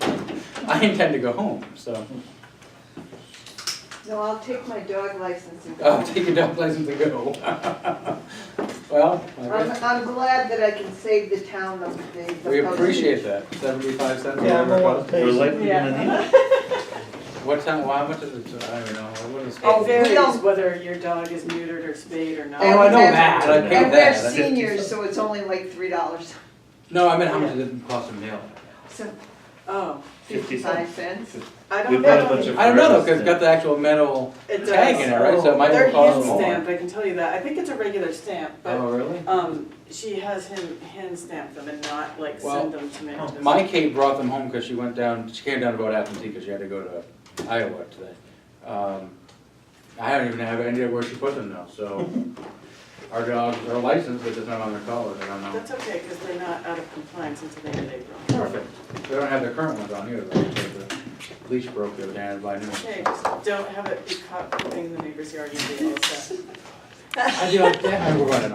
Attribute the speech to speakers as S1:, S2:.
S1: I intend to go home, so.
S2: No, I'll take my dog license and go.
S1: Oh, take a dog license and go. Well, I
S2: I'm,
S1: guess
S2: I'm glad that I can save the town the, the. the
S1: we appreciate that, seventy-five cents. or
S3: Yeah,
S1: whatever it
S3: no
S1: was.
S3: one
S4: We're
S3: pays.
S4: likely gonna need it.
S1: What time, why, what is it, I don't know, what is it?
S5: It
S2: Oh, we
S5: varies
S2: don't-
S5: whether your dog is neutered or spayed or
S1: Oh,
S5: not.
S1: I know that, I
S2: And
S1: paid
S2: we're
S1: that. I-
S2: seniors, so it's only like three dollars,
S1: No, I meant how much did it cost to mail?
S2: so
S5: Oh,
S4: Fifty
S2: fifty-five cents.
S5: I don't
S4: We've got a
S5: know.
S4: bunch of.
S1: I don't know though, cause
S4: forever
S1: it's got the actual metal
S5: It does.
S1: tag in it, right, so it might
S5: They're
S1: have
S5: hand
S1: cost more.
S5: stamped, I can tell you that. I think it's a regular stamp, but,
S1: Oh, really?
S5: um, she has him hand stamp them and not like
S1: Well, oh,
S5: send them to me.
S1: My Kate brought them home because she went down, she came down to vote absentee because she had to go to Iowa today. Um, I don't even have any idea where she put them though, so our dogs are licensed, but it's not on their collars, I don't know.
S5: That's okay, because they're not out of compliance until the end of April.
S1: Perfect. They don't have their current ones on either, though, because the leash broke the other day, I had to buy new ones.
S5: Okay, just don't have it be caught pooping in the neighbor's yard, you'll be all set.
S1: I do, I we're running